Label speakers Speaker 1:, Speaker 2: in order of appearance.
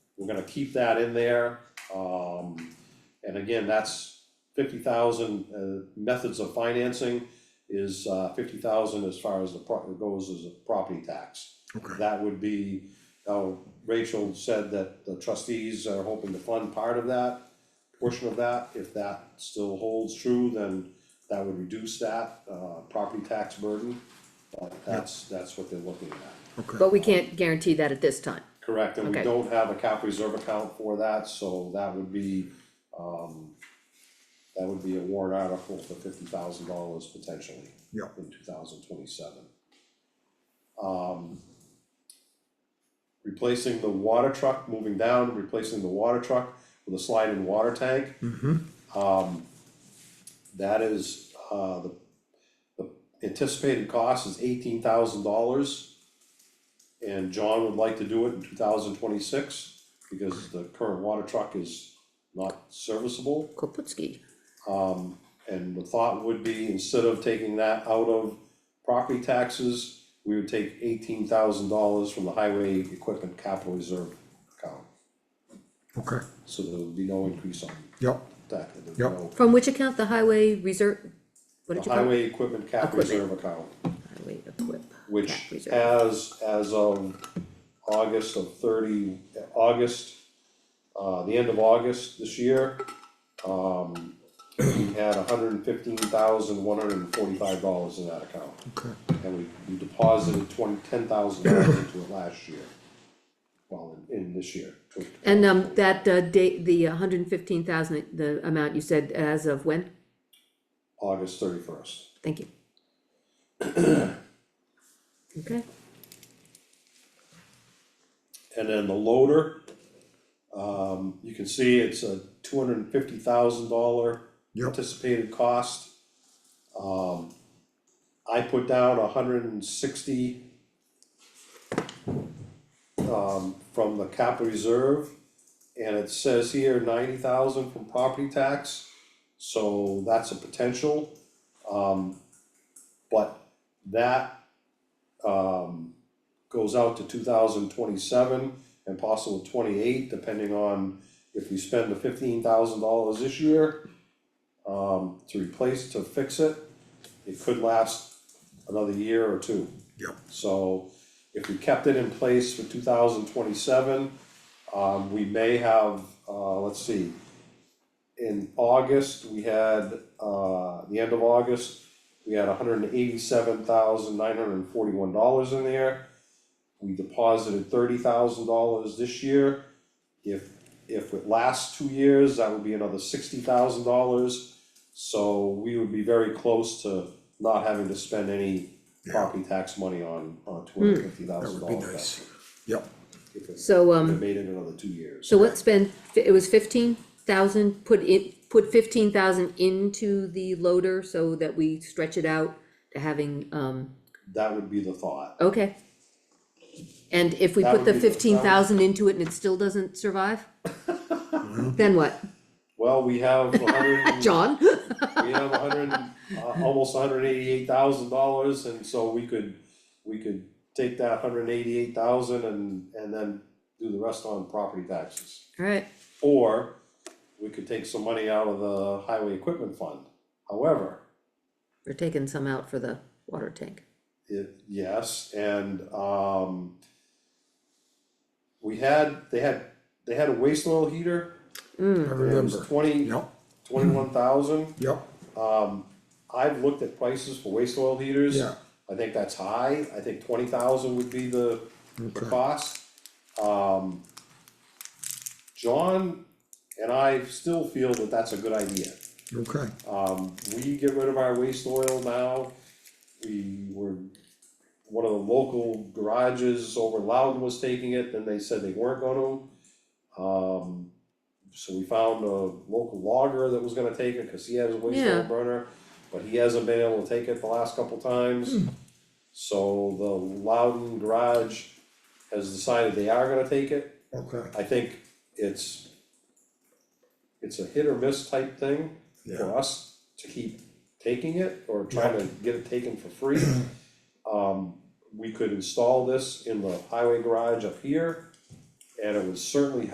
Speaker 1: we're gonna keep that in there. Um, and again, that's fifty thousand, uh, methods of financing is, uh, fifty thousand as far as the pro- goes as a property tax.
Speaker 2: Okay,
Speaker 1: That would be, uh, Rachel said that the trustees are hoping to fund part of that, portion of that. If that still holds true, then that would reduce that, uh, property tax burden. But that's, that's what they're looking at.
Speaker 2: okay,
Speaker 3: But we can't guarantee that at this time.
Speaker 1: Correct, and we
Speaker 3: Okay.
Speaker 1: don't have a cap reserve account for that, so that would be, um, that would be a warrant article for fifty thousand dollars potentially
Speaker 2: yeah,
Speaker 1: in two thousand twenty-seven. Um, replacing the water truck, moving down, replacing the water truck with a slide-in water tank.
Speaker 2: mm-hmm,
Speaker 1: Um, that is, uh, the, the anticipated cost is eighteen thousand dollars. And John would like to do it in two thousand twenty-six, because the current water truck is not serviceable.
Speaker 3: Koputski,
Speaker 1: Um, and the thought would be, instead of taking that out of property taxes, we would take eighteen thousand dollars from the highway equipment capital reserve account.
Speaker 2: okay,
Speaker 1: So there would be no increase on
Speaker 2: yeah,
Speaker 1: that, there would be
Speaker 2: Yep.
Speaker 1: no-
Speaker 3: from which account the highway reserve, what did
Speaker 1: the
Speaker 3: you call it?
Speaker 1: highway equipment cap
Speaker 3: Equipment.
Speaker 1: reserve account,
Speaker 3: Highway equip,
Speaker 1: which
Speaker 3: cap reserve,
Speaker 1: has, as of August of thirty, August, uh, the end of August this year, um, we had hundred and fifteen thousand, one hundred and forty-five dollars in that account.
Speaker 2: okay,
Speaker 1: And we, we deposited twenty, ten thousand dollars into it last year, well, in, in this year, tw-
Speaker 3: and um, that uh, date, the hundred and fifteen thousand, the amount you said as of when?
Speaker 1: August thirty-first.
Speaker 3: Thank you. Okay,
Speaker 1: And then the loader, um, you can see it's a two hundred and fifty thousand dollar
Speaker 2: Yep.
Speaker 1: anticipated cost. Um, I put down a hundred and sixty um, from the capital reserve, and it says here ninety thousand from property tax, so that's a potential. Um, but that, um, goes out to two thousand twenty-seven and possible twenty-eight, depending on if we spend the fifteen thousand dollars this year um, to replace, to fix it, it could last another year or two.
Speaker 2: yeah,
Speaker 1: So if we kept it in place for two thousand twenty-seven, um, we may have, uh, let's see. In August, we had, uh, the end of August, we had hundred and eighty-seven thousand nine hundred and forty-one dollars in there. We deposited thirty thousand dollars this year. If, if it lasts two years, that would be another sixty thousand dollars. So we would be very close to not having to spend any
Speaker 2: Yeah.
Speaker 1: property tax money on, on two hundred and fifty
Speaker 2: that
Speaker 1: thousand
Speaker 2: would be
Speaker 1: dollar
Speaker 2: nice,
Speaker 1: investment.
Speaker 2: yeah,
Speaker 1: If it,
Speaker 3: so
Speaker 1: if it
Speaker 3: um,
Speaker 1: made it another two years.
Speaker 3: so let's spend, it was fifteen thousand, put in, put fifteen thousand into the loader so that we stretch it out to having um,
Speaker 1: That would be the thought.
Speaker 3: Okay. And if we
Speaker 1: That
Speaker 3: put
Speaker 1: would
Speaker 3: the
Speaker 1: be the- that would-
Speaker 3: fifteen thousand into it and it still doesn't survive? Then what?
Speaker 1: Well, we have a hundred,
Speaker 3: John?
Speaker 1: we have a hundred, and, uh, almost hundred eighty-eight thousand dollars, and so we could, we could take that hundred eighty-eight thousand and, and then do the rest on property taxes.
Speaker 3: Alright,
Speaker 1: Or we could take some money out of the highway equipment fund. However,
Speaker 3: we're taking some out for the water tank.
Speaker 1: It, yes, and, um. We had, they had, they had a waste oil heater,
Speaker 3: Hmm.
Speaker 2: I
Speaker 1: it was
Speaker 2: remember,
Speaker 1: twenty,
Speaker 2: yeah,
Speaker 1: twenty-one thousand.
Speaker 2: yeah,
Speaker 1: Um, I've looked at prices for waste oil heaters.
Speaker 2: Yeah.
Speaker 1: I think that's high, I think twenty thousand would be the, the
Speaker 2: Okay.
Speaker 1: cost. Um. John and I still feel that that's a good idea.
Speaker 2: okay,
Speaker 1: Um, we get rid of our waste oil now, we were, one of the local garages over in Loudon was taking it, then they said they weren't gonna. Um, so we found a local logger that was gonna take it, cause he has a waste oil
Speaker 3: Yeah.
Speaker 1: burner, but he hasn't been able to take it the last couple times. So the Loudon garage has decided they are gonna take it,
Speaker 2: okay,
Speaker 1: I think it's, it's a hit or miss type thing
Speaker 2: Yeah.
Speaker 1: for us to keep taking it or trying to get it taken for free. Um, we could install this in the highway garage up here, and it would certainly